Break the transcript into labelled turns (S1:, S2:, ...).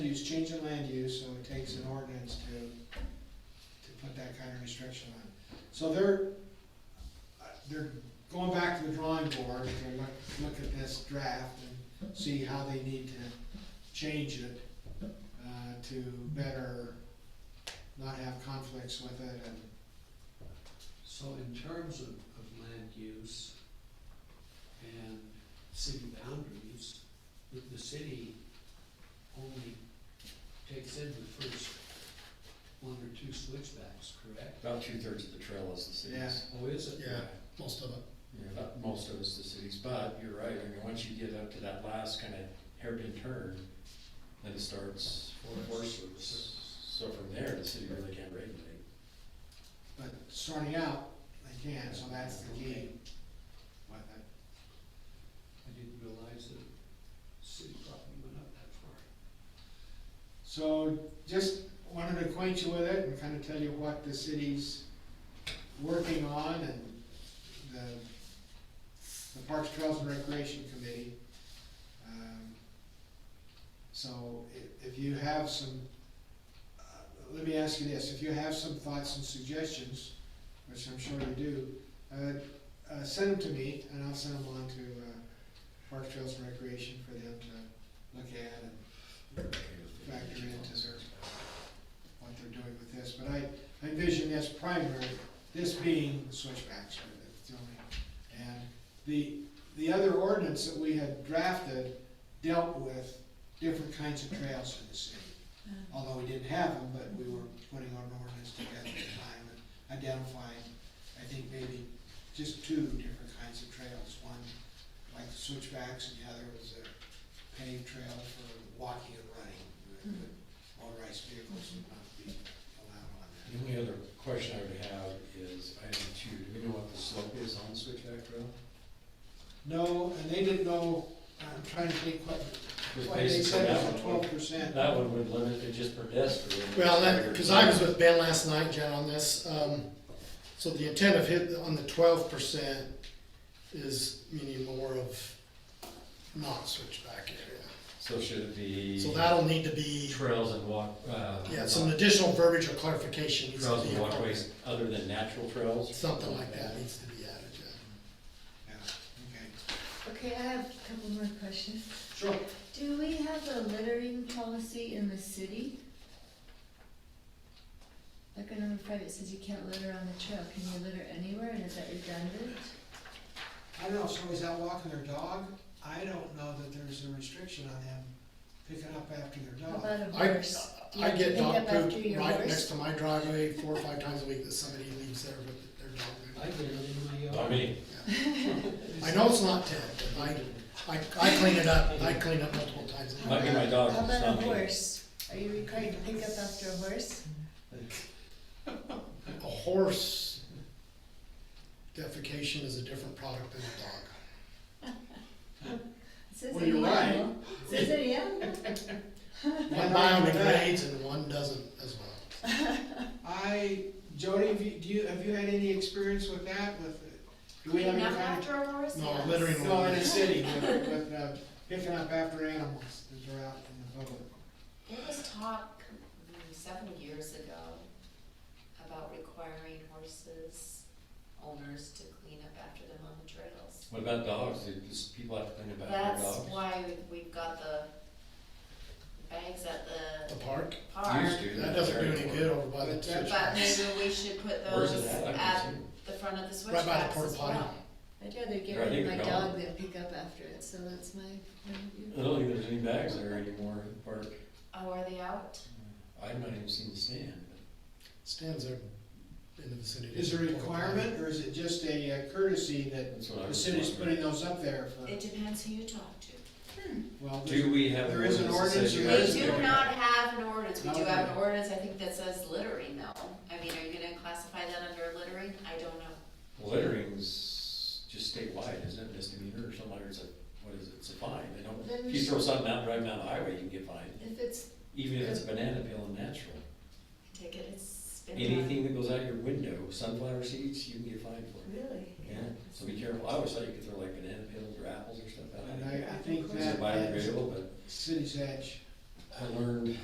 S1: use, change in land use, so it takes an ordinance to, to put that kind of restriction on. So they're, uh, they're going back to the drawing board to look, look at this draft and see how they need to change it, uh, to better not have conflicts with it and
S2: So in terms of, of land use and city boundaries, the, the city only takes in the first one or two switchbacks, correct?
S3: About two-thirds of the trail is the city's.
S2: Oh, is it?
S4: Yeah, most of it.
S3: Yeah, About most of it's the city's, but you're right, I mean, once you get up to that last kind of hairpin turn, then it starts
S2: Forest.
S3: forest service. So from there, the city really can't regulate.
S1: But starting out, they can, so that's the key. uh, What the-
S2: I didn't realize that city property went up that far.
S1: So just wanted to acquaint you with it and kind of tell you what the city's working on and the, the Parks, Trails and Recreation Committee. Um, So if, if you have some, uh, let me ask you this, if you have some thoughts and suggestions, which I'm sure you do, uh, uh, send them to me and I'll send them on to, uh, Parks, Trails and Recreation for them to look at and factor into their, what they're doing with this, but I I envision this primary, this being the switchbacks, but it's the only- and the, the other ordinance that we had drafted dealt with different kinds of trails in the city. Although we didn't have them, but we were putting our ordinance together at the time and identifying, I think maybe just two different kinds of trails. One, like the switchbacks, and the other was a paved trail for walking and running. Motorized vehicles would not be allowed on that.
S3: The only other question I would have is item two, do we know what the slope is on the switchback trail?
S1: No, and they didn't know, uh, I'm trying to think what,
S3: Because
S1: what they said
S3: basically
S1: was
S3: that
S1: twelve
S3: one-
S1: percent.
S3: That one would limit it just pedestrian.
S4: Well, that, cause I was with Ben last night, Jen, on this, um, so the intent of hit, on the twelve percent is meaning more of not switchback area.
S3: So should it be
S4: So that'll need to be,
S3: trails and walk, uh.
S4: yeah, some additional verbiage or clarification needs to
S3: Trails
S4: be.
S3: and walkways other than natural trails?
S4: Something like that needs to be added, yeah.
S1: Yeah, okay.
S5: Okay, I have a couple more questions.
S1: Sure.
S5: Do we have a littering policy in the city? Like in the private, it says you can't litter on the trail, can you litter anywhere, and is that redundant?
S1: I don't know, if somebody's out walking their dog, I don't know that there's a restriction on them picking up after their
S5: How
S1: dog.
S5: about a
S4: I-
S5: horse? Do you
S4: I get
S5: pick
S4: dog
S5: up after
S4: poop
S5: your
S4: right
S5: horse?
S4: next to my driveway four or five times a week that somebody leaves there with their dog.
S2: I did it in my
S3: I
S2: yard.
S3: mean,
S4: I know it's not ten, but I, I, I clean it up, I clean up multiple times. a
S5: How
S3: might be my
S5: about-
S3: dog,
S5: How
S3: it's
S5: about a
S3: not me.
S5: horse? Are you required to pick up after a horse?
S4: A horse defecation is a different product than a dog.
S5: It says
S1: Well, you're
S5: any
S1: right.
S5: animal. It says any animal.
S4: One biodegrades and one doesn't as well.
S1: I, Jody, have you, do you, have you had any experience with that, with, do we have any kind
S6: after hours?
S4: No, littering
S1: of? No, in the
S4: ordinance.
S1: city, with, with, uh, picking up after animals that are out in the public.
S6: It was talk mm, several years ago about requiring horses owners to clean up after them on the trails.
S3: What about dogs? Do just people have to think about their
S6: That's
S3: dogs?
S6: why we've got the bags at
S4: The
S6: the
S4: park,
S6: park,
S3: Used to,
S4: that doesn't do any
S3: terrible.
S4: good over by the
S1: But-
S6: but
S4: switch.
S6: maybe we should put
S3: Where's
S6: those
S3: it at? I
S6: at
S3: can
S6: the front of the
S4: Right by the
S6: switchbacks
S4: porta
S6: as
S4: potty.
S6: well.
S5: I'd rather get
S3: Right,
S5: rid
S3: you
S5: of my
S3: can
S5: dog than pick up after it, so that's my point of view.
S3: see. I don't think there's any bags there anymore at the park.
S6: Oh, are they out?
S3: I've not even seen the stand.
S4: Stands there in the vicinity.
S1: Is there a requirement, or is it just a uh, courtesy that
S3: That's what I
S1: the
S3: was
S1: city's
S3: wondering.
S1: putting those up there for,
S6: It depends who you talk to.
S1: well, there's-
S3: Do we have?
S1: There is an
S3: that says
S1: ordinance
S3: you
S1: you
S3: have
S6: We
S3: to
S6: do
S3: pick it
S6: not
S3: up?
S6: have an ordinance, we do have an
S1: Okay.
S6: ordinance, I think that says littering though. I mean, are you gonna classify that under littering? I don't know.
S3: Littering's just statewide, isn't it? Misdemeanor or something like, it's a, what is it? It's a fine. They don't,
S5: Then-
S3: if you throw something out, driving down the highway, you can get fined,
S5: If it's
S3: even if it's a banana peel and natural.
S6: Take it, it's been. done.
S3: Anything that goes out your window, sunflower seeds, you can get fined for it.
S6: Really?
S3: Yeah, so be careful. I always thought you could throw like banana peels or apples or stuff out.
S1: And I, I think
S3: It's
S1: that,
S3: biodegradable, but
S1: that's city's edge.
S3: I learned